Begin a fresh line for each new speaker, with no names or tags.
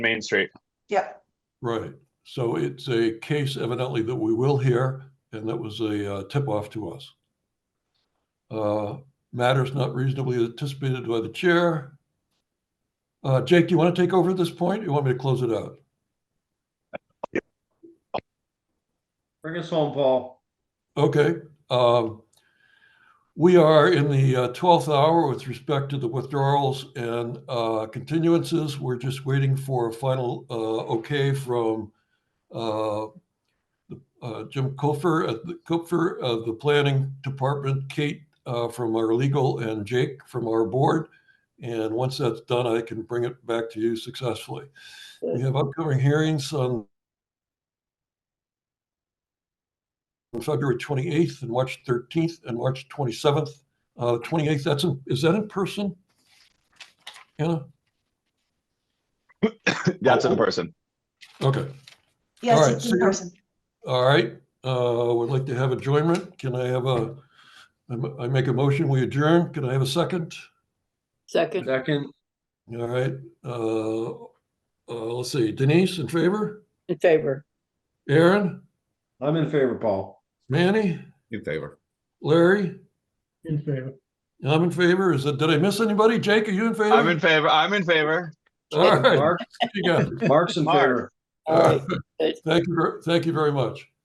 Main Street.
Yep,
Right. So it's a case evidently that we will hear, and that was a uh, tip-off to us. Uh, Matters not reasonably anticipated by the chair. Uh, Jake, do you want to take over at this point? or You want me to close it out?
Bring us home, Paul.
Okay. um, We are in the uh, 12th hour with respect to the withdrawals and uh, continuances. We're just waiting for a final uh, okay from uh, the- uh, Jim Kupfer, at the- Kupfer of the Planning Department, Kate uh, from our legal, and Jake from our board. And once that's done, I can bring it back to you successfully. We have upcoming hearings on on February 28th and March 13th and March 27th. Uh, 28th, that's, in- is that in person? Anna?
That's in person.
Okay, All
yes,
right,
it's
so
in
you're-
person.
all right. Uh, would like to have adjournment. Can I have a, I'm- I make a motion, we adjourn. Can I have a second?
Second,
Second,
All right. Uh, uh, let's see, Denise in favor?
in favor.
Aaron,
I'm in favor, Paul.
Manny,
In favor.
Larry? In favor. I'm in favor. Is it, did I miss anybody? Jake, are you in favor?
I'm in favor. I'm in favor.
All right,
Mark,
you got it.
Mark's in
Mark.
favor.
All
All
right.
right.
Thank you, ver- thank you very much.